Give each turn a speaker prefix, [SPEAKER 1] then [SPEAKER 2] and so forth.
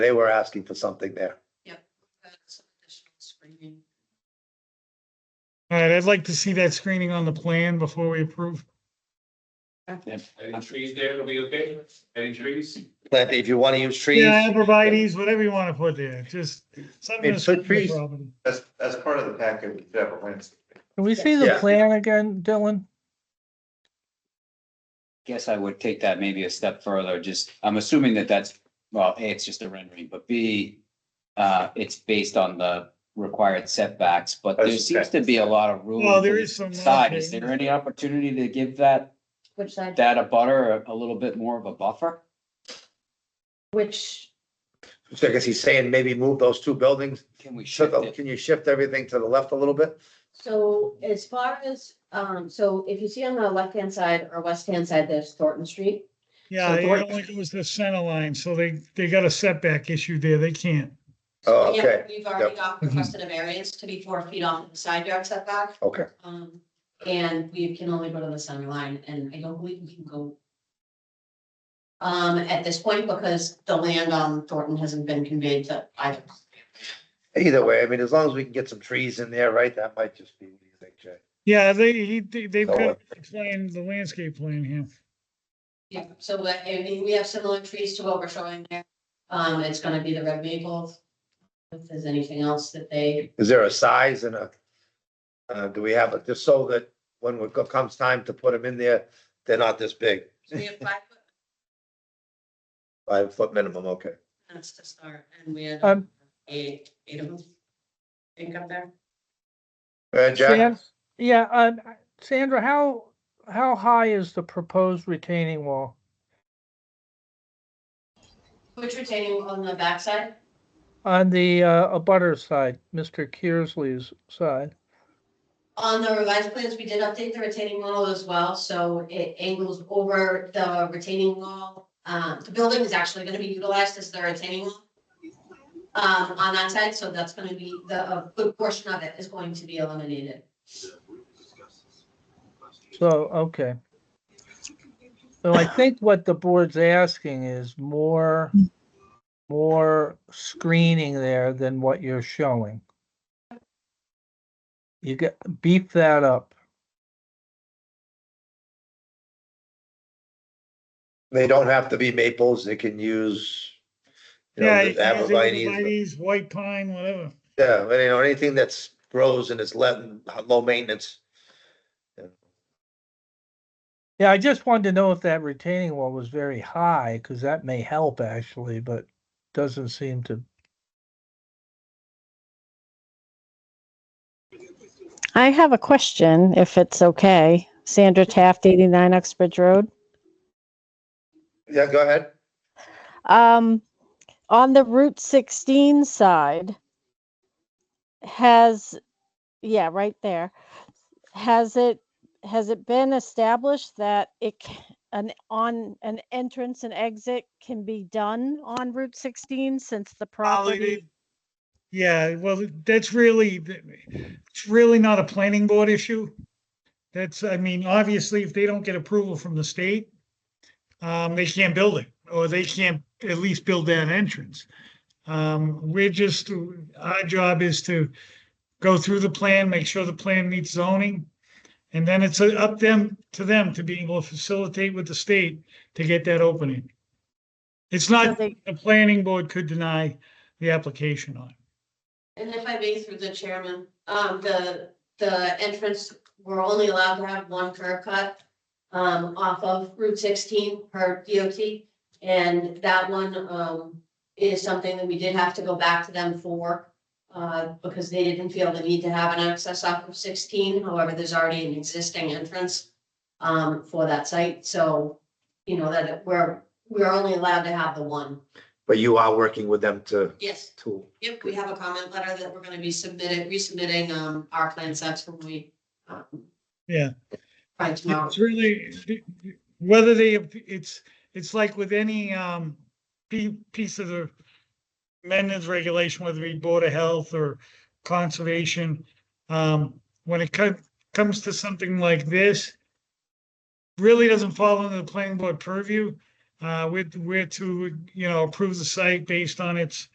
[SPEAKER 1] They were asking for something there.
[SPEAKER 2] some additional screening.
[SPEAKER 3] All right, I'd like to see that screening on the plan before we approve.
[SPEAKER 4] Any trees there, it'll be okay? Any trees?
[SPEAKER 1] Plant, if you want to use trees,
[SPEAKER 3] Yeah, arborvitae's, whatever you want to put there, just something.
[SPEAKER 1] Hey,
[SPEAKER 3] that's
[SPEAKER 1] put
[SPEAKER 3] on the
[SPEAKER 1] trees.
[SPEAKER 3] property.
[SPEAKER 4] That's, that's part of the packet with Deborah Lindsay.
[SPEAKER 5] Can we see the
[SPEAKER 1] Yeah.
[SPEAKER 5] plan again, Dylan?
[SPEAKER 6] Guess I would take that maybe a step further, just, I'm assuming that that's, well, A, it's just a rendering, but B, uh, it's based on the required setbacks, but there
[SPEAKER 4] That's
[SPEAKER 6] seems to be a lot of room.
[SPEAKER 3] Well, there
[SPEAKER 6] to the
[SPEAKER 3] is some,
[SPEAKER 6] Side,
[SPEAKER 3] okay.
[SPEAKER 6] is there any opportunity to give that,
[SPEAKER 7] Which side,
[SPEAKER 6] that a butter, a little bit more of a buffer?
[SPEAKER 7] which,
[SPEAKER 1] so I guess he's saying maybe move those two buildings.
[SPEAKER 6] Can we shift
[SPEAKER 1] Shift-
[SPEAKER 6] it?
[SPEAKER 1] Can you shift everything to the left a little bit?
[SPEAKER 7] so as far as, um, so if you see on the left-hand side or west-hand side, there's Thornton Street.
[SPEAKER 3] Yeah,
[SPEAKER 7] So
[SPEAKER 3] I
[SPEAKER 7] Thornton-
[SPEAKER 3] don't think it was the center line, so they, they got a setback issue there, they can't.
[SPEAKER 1] Oh,
[SPEAKER 2] Yeah,
[SPEAKER 1] okay,
[SPEAKER 2] We've already got requested a variance to be four feet off the side yard setback,
[SPEAKER 1] okay.
[SPEAKER 2] um, and we can only go to the center line, and I don't believe we can go um, at this point, because the land on Thornton hasn't been conveyed to either.
[SPEAKER 1] Either way, I mean, as long as we can get some trees in there, right? That might just be, what do you think, Jay?
[SPEAKER 3] Yeah, they, he, they- they've
[SPEAKER 1] So,
[SPEAKER 3] got
[SPEAKER 1] uh,
[SPEAKER 3] to explain the landscape plan here.
[SPEAKER 2] Yeah, so, uh, I mean, we have similar trees to what we're showing there, um, it's gonna be the red maple. If there's anything else that they
[SPEAKER 1] Is there a size and a, uh, do we have it, just so that when it co- comes time to put them in there, they're not this big?
[SPEAKER 2] So we have five foot
[SPEAKER 1] Five foot minimum, okay.
[SPEAKER 2] fence to start, and we had
[SPEAKER 5] Um,
[SPEAKER 2] eight, eight of them. Think up there.
[SPEAKER 1] Uh, Jack,
[SPEAKER 5] San- Yeah, um, Sandra, how, how high is the proposed retaining wall?
[SPEAKER 2] Which retaining on the backside?
[SPEAKER 5] On the, uh, abutter side, Mr. Kearsley's side,
[SPEAKER 2] On the revised plans, we did update the retaining wall as well, so it angles over the retaining wall. Um, the building is actually gonna be utilized as the retaining wall. Um, on that side, so that's gonna be, the, a good portion of it is going to be eliminated.
[SPEAKER 5] so, okay. So I think what the board's asking is more, more screening there than what you're showing. You get, beef that up.
[SPEAKER 1] they don't have to be maples, they can use, you
[SPEAKER 3] Yeah,
[SPEAKER 1] know,
[SPEAKER 3] you
[SPEAKER 1] the
[SPEAKER 3] can use
[SPEAKER 1] arborvitae's.
[SPEAKER 3] arborvitae's, white pine, whatever.
[SPEAKER 1] Yeah, but you know, anything that's grows and is let, low maintenance.
[SPEAKER 5] Yeah, I just wanted to know if that retaining wall was very high, because that may help actually, but doesn't seem to.
[SPEAKER 8] I have a question, if it's okay. Sandra Taft, 89 Uxbridge Road.
[SPEAKER 1] Yeah, go ahead.
[SPEAKER 8] Um, on the Route 16 side, has, yeah, right there. Has it, has it been established that it, c- an, on, an entrance and exit can be done on Route 16 since the
[SPEAKER 3] Probably they-
[SPEAKER 8] property?
[SPEAKER 3] Yeah, well, that's really, it's really not a planning board issue. That's, I mean, obviously, if they don't get approval from the state, um, they can't build it, or they can't at least build that entrance. Um, we're just, our job is to go through the plan, make sure the plan meets zoning. And then it's uh, up them, to them to be able to facilitate with the state to get that opening. It's
[SPEAKER 8] So
[SPEAKER 3] not,
[SPEAKER 8] they-
[SPEAKER 3] the planning board could deny the application on.
[SPEAKER 2] And if I may through the chairman, um, the, the entrance, we're only allowed to have one curb cut. Um, off of Route sixteen per DOT, and that one, um, is something that we did have to go back to them for. Uh, because they didn't feel the need to have an access off of sixteen, however, there's already an existing entrance. Um, for that site, so, you know, that it- we're, we're only allowed to have the one.
[SPEAKER 1] But you are working with them to,
[SPEAKER 2] Yes.
[SPEAKER 1] to,
[SPEAKER 2] Yep, we have a comment letter that we're gonna be submitting, resubmitting, um, our plan sets when we, um.
[SPEAKER 3] Yeah.
[SPEAKER 2] By tomorrow.
[SPEAKER 3] It's really, whether they, it's, it's like with any, um, pi- piece of the amendments regulation, whether it be Board of Health or Conservation. Um, when it co- comes to something like this, really doesn't fall under the planning board purview. Uh, we're, we're to, you know, approve the site based on its